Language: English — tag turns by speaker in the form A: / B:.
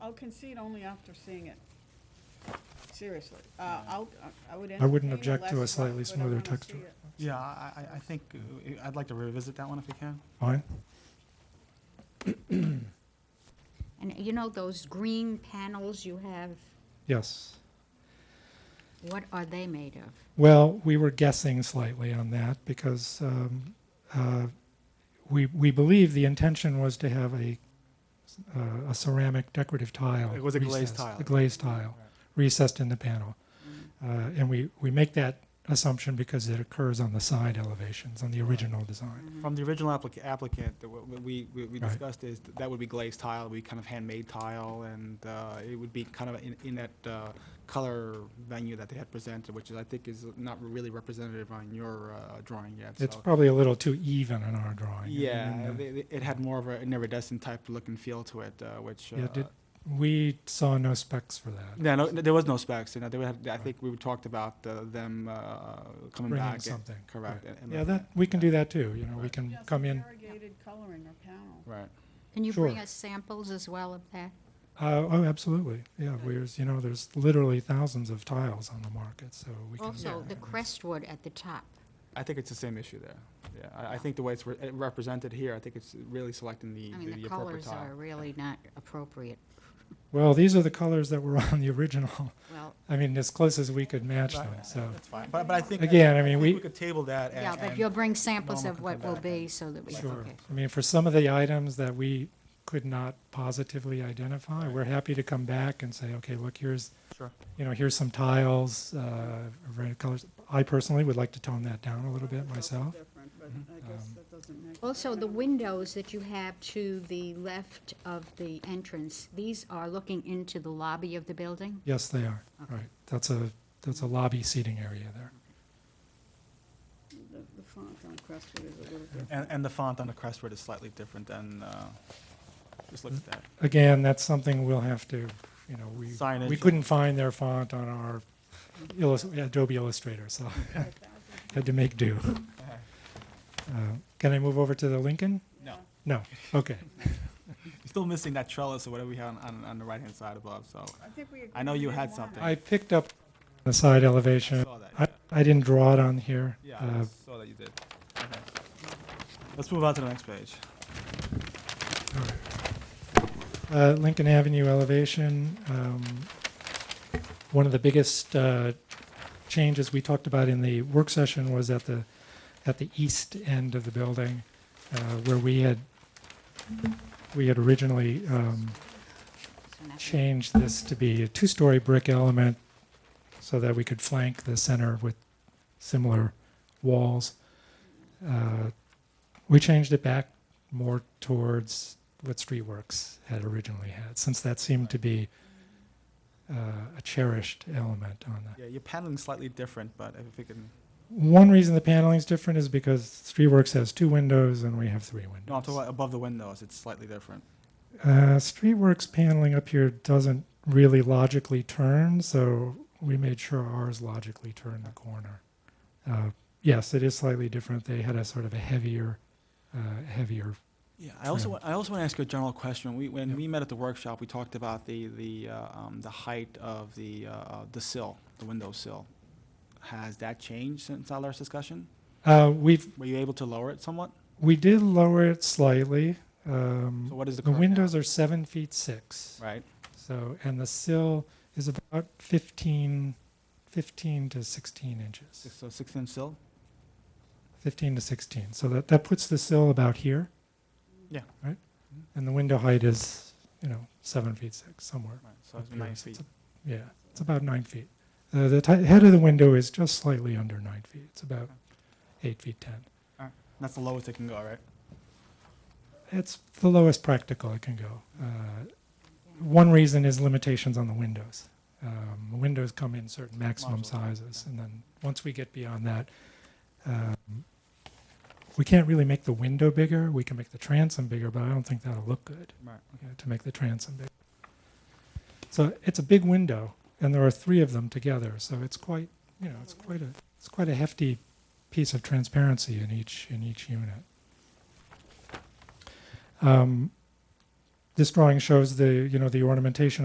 A: I'll concede only after seeing it. Seriously, uh, I'll, I would.
B: I wouldn't
A: entertain
B: object to a
A: less work,
B: slightly
A: but I
B: smoother
A: wanna
B: text.
A: see it.
C: Yeah, I, I- I think, uh, I'd like to revisit that one if we can.
B: Fine?
D: And you know those green panels you have,
B: Yes.
D: what are they made of?
B: Well, we were guessing slightly on that because um, uh, we we believe the intention was to have a uh, a ceramic decorative tile.
C: It was a glazed
B: recessed-
C: tile.
B: A glazed tile recessed in the panel, uh, and we we make that assumption because it occurs on the side elevations on the original design.
C: From the original applica- applicant, the- what we, we we
B: Right.
C: discussed is th- that would be glazed tile, we kind of handmade tile, and uh, it would be kind of in, in that uh, color venue that they had presented, which is, I think is not really representative on your uh, drawing yet,
B: It's
C: so-
B: probably a little too even in our drawing.
C: Yeah,
B: And, uh,
C: they- they- it had more of an iridescent type look and feel to it, uh, which.
B: Yeah,
C: uh,
B: did- we saw no specs for that.
C: No, no, there was no specs, you know, they would have, I think we talked about uh, them uh, coming
B: Bringing
C: back. and-
B: something,
C: Correct. and- and
B: Yeah,
C: looking
B: that
C: at-
B: we can do that too. You know, we
C: Right.
B: can
A: Yeah, some
B: come in.
A: Variegated coloring or panel.
C: Right.
D: Can you bring
B: Sure.
D: us samples as well of that?
B: Uh, oh, absolutely. Yeah, whereas, you know, there's literally thousands of tiles on the market, so we can.
D: Also, the crestwood at the top.
C: I think it's the same issue there. Yeah, I, I think the way it's re- uh, represented here, I think it's really selecting the,
D: I mean, the
C: appropriate
D: colors
C: tile.
D: are really not appropriate.
B: Well, these are the colors that were on the original.
D: Well,
B: I mean, as close as we could match
C: Right,
B: them, so.
C: That's fine, but, but I think.
B: Again, I mean,
C: think
B: we-
C: We could table that and.
D: yeah, but
C: and-
D: you'll bring samples
C: Norma
D: of
C: can
D: what
C: come
D: will
C: back
D: be so that we,
B: Sure.
D: okay.
B: I mean, for some of the items that we could not positively identify, we're happy to come back and say, okay, look, here's,
C: Sure.
B: you know, here's some tiles, uh, red colors. I personally would like to tone that down a little bit
A: It's also
B: myself. Mm-hmm. Um,
A: different, but I guess that doesn't make-
D: Also, the
A: Um,
D: windows that you have to the left of the entrance, these are looking into the lobby of the building?
B: Yes, they are.
D: Okay.
B: Right. That's a, that's a lobby seating area there.
A: The the font on Crestwood is a little different.
C: And, and the font on the Crestwood is slightly different than, uh, just look at that.
B: again, that's something we'll have to, you know, we,
C: Signage
B: we
C: and-
B: couldn't find their font on our illus- Adobe Illustrator, so had to make do. Uh, Can I move over to the Lincoln?
C: No,
B: No, okay.
C: you're still missing that trellis or whatever we have on, on, on the right-hand side above, so.
A: I think we.
C: I know
A: agreed
C: you
A: we
C: had
A: didn't want
C: something.
B: I picked up the side
C: I
B: elevation.
C: saw that,
B: I, I didn't draw it on here.
C: yeah. Yeah, I
B: Uh,
C: saw that you did. Okay. Let's move on to the next page.
B: Uh, Lincoln Avenue elevation, um, one of the biggest uh, changes we talked about in the work session was at the, at the east end of the building, uh, where we had, we had originally um,
D: So nothing-
B: changed this to be a two-story brick element so that we could flank the center with similar walls. Uh, We changed it back more towards what Streetworks had originally had, since that seemed to be uh, a cherished element on that.
C: Yeah, your paneling's slightly different, but if we can,
B: One reason the paneling's different is because Streetworks has two windows and we have three windows.
C: no, I'm talking about above the windows, it's slightly different.
B: Uh, Streetworks paneling up here doesn't really logically turn, so we made sure ours logically turned the corner. Uh, yes, it is slightly different. They had a sort of a heavier, uh, heavier.
C: Yeah, I also,
B: True.
C: wa- I also want to ask you a general question. We, when
B: Yep.
C: we met at the workshop, we talked about the, the, uh, um, the height of the, uh, the sill, the window sill. Has that changed since our last discussion?
B: Uh, we've
C: Were you able to lower it somewhat?
B: we did lower it slightly.
C: So
B: Um,
C: what is the
B: the
C: current? now?
B: windows are seven feet six.
C: Right,
B: So and the sill is about 15, 15 to sixteen inches.
C: Six- so six-inch sill?
B: 15 to 16. So that, that puts the sill about here.
C: Yeah.
B: Right? And the window height is, you know, seven feet six, somewhere.
C: Right, so it's
B: up here.
C: nine
B: So
C: feet.
B: It's a- yeah, it's about nine feet. Uh, the ti- head of the window is just slightly under nine feet. It's about eight feet 10.
C: That's the lowest it can go, right?
B: It's the lowest practical it can go. Uh, one reason is limitations on the windows. Um, windows come in certain maximum
C: Modules, right,
B: sizes, and then once we get beyond that, um, we can't really make the window bigger. We can make the transom bigger, but I don't think that'll look good
C: Right.
B: you know, to make the transom bigger. So it's a big window, and there are three of them together. So it's quite, you know, it's quite a it's quite a hefty piece of transparency in each in each unit. Um, this drawing shows the, you know, the ornamentation